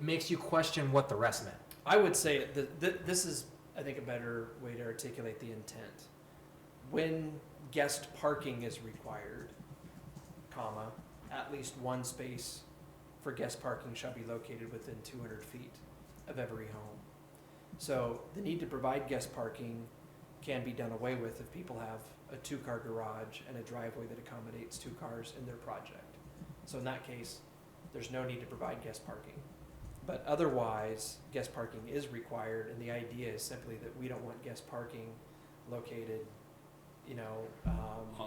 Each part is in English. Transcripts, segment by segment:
makes you question what the rest meant. I would say that th- this is, I think, a better way to articulate the intent. When guest parking is required, comma, at least one space for guest parking shall be located within two hundred feet of every home. So the need to provide guest parking can be done away with if people have a two-car garage and a driveway that accommodates two cars in their project. So in that case, there's no need to provide guest parking. But otherwise, guest parking is required, and the idea is simply that we don't want guest parking located, you know, On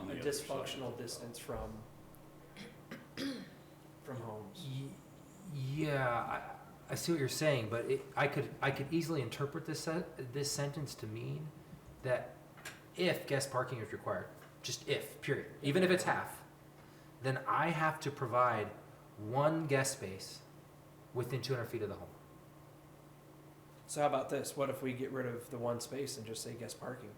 um, the a other side. dysfunctional distance from, from homes. Y- Yeah, I, I see what you're saying, but it, I could I could easily interpret this sen- this sentence to mean that if guest parking is required, just if period, even if it's half, then I have to provide one guest space within 200 feet of the home. So how about this? What if we get rid of the one space and just say guest parking?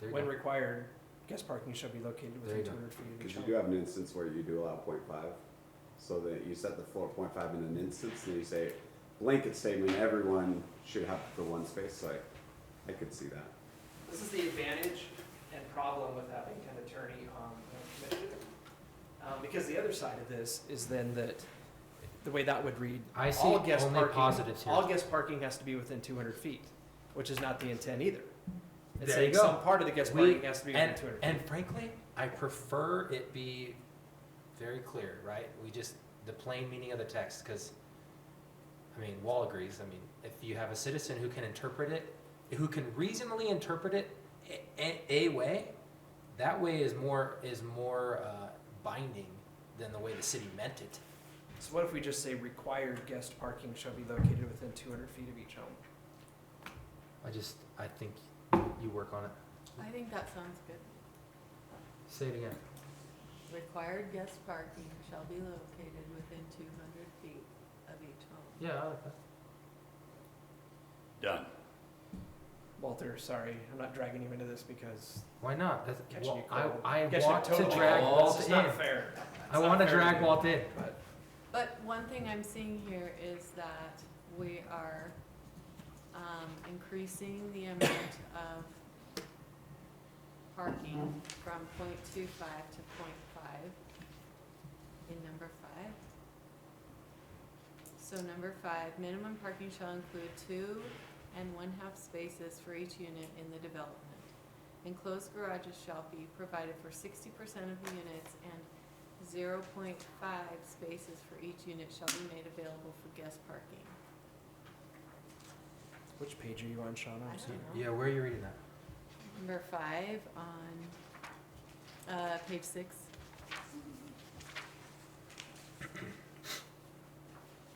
There you When go. required, guest parking shall be located There you within go. two hundred feet of each Because you do home. have an instance where you do allow 0.5, so that you set the floor 0.5 in an instance, and you say blanket statement, everyone should have the one space, so I, I could see that. This is the advantage and problem with having an attorney on the commission. Um, because the other side of this is then that, the way that would read, I see all guest only parking, positives here. all guest parking has to be within two hundred feet, which is not the intent either. There It's you saying go. some part of the guest We- parking has to be within and, two hundred feet. and frankly, I prefer it be very clear, right? We just, the plain meaning of the text, because, I mean, Wall agrees. I mean, if you have a citizen who can interpret it, who can reasonably interpret it a, a- a way, that way is more, is more uh, binding than the way the city meant it. So what if we just say required guest parking shall be located within two hundred feet of each home? I just, I think you work on it. I think that sounds good. Say it again. Required guest parking shall be located within two hundred feet of each home. Yeah, I like that. Done. Walter, sorry, I'm not dragging you into this because Why not? That's, catching well, you cold. I, I Catching want you to totally drag cold. Walt This is in. not fair. I not want to fair drag to Walt in. But But one thing I'm seeing here is that we are, um, increasing the amount of parking from point two five to point five in number five. So number five, minimum parking shall include two and one-half spaces for each unit in the development. Enclosed garages shall be provided for sixty percent of the units and zero point five spaces for each unit shall be made available for guest parking. which page are you on, Shauna? I I'm sorry. don't know. Yeah, where are you reading that? Number five on, uh, page six.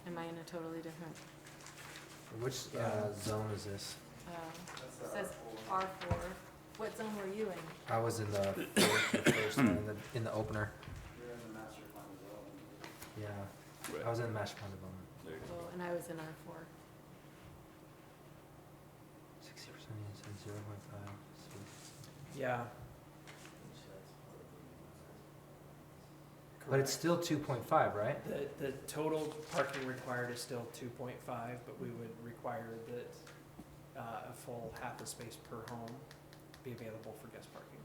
Am I in a totally different, Which Yeah. uh, zone is this? uh, says R four, what zone were you in? I was in the fourth, the first one, in the, in the opener. Yeah, I Right. was in the master plan development. There you go. Oh, and I was in R four. Sixty percent units and zero point five. Yeah. But it's still two point five, right? The, the total parking required is still two point five, but we would require that, uh, a full half a space per home be available for guest parking.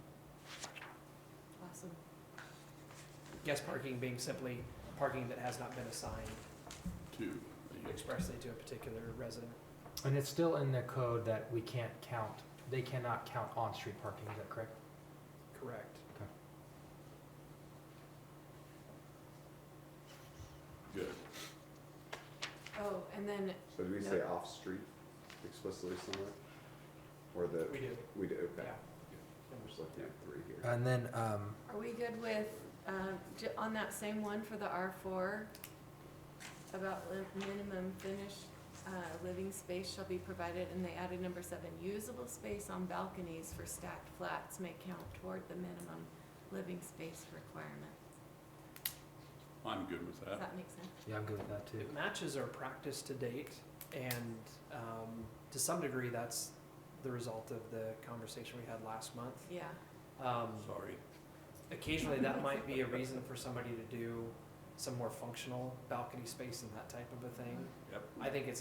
Awesome. Guest parking being simply parking that has not been assigned Two. There you go. expressly to a particular resident. And it's still in the code that we can't count, they cannot count on-street parking, is that correct? Correct. Good. Oh, and then So do we say off-street explicitly somewhere? Or the, We do, we do, yeah. okay, I'm just looking at three here. And then, um, Are we good with, um, j- on that same one for the R four, about li- minimum finished, uh, living space shall be provided, and they added number seven, usable space on balconies for stacked flats may count toward the minimum living space requirement. I'm good with Does that. that make sense? yeah, I'm good with that too. It matches our practice to date, and um, to some degree, that's the result of the conversation we had last month. Yeah, Um, Sorry. occasionally, that might be a reason for somebody to do some more functional balcony space and that type of a thing. Yep. I think it's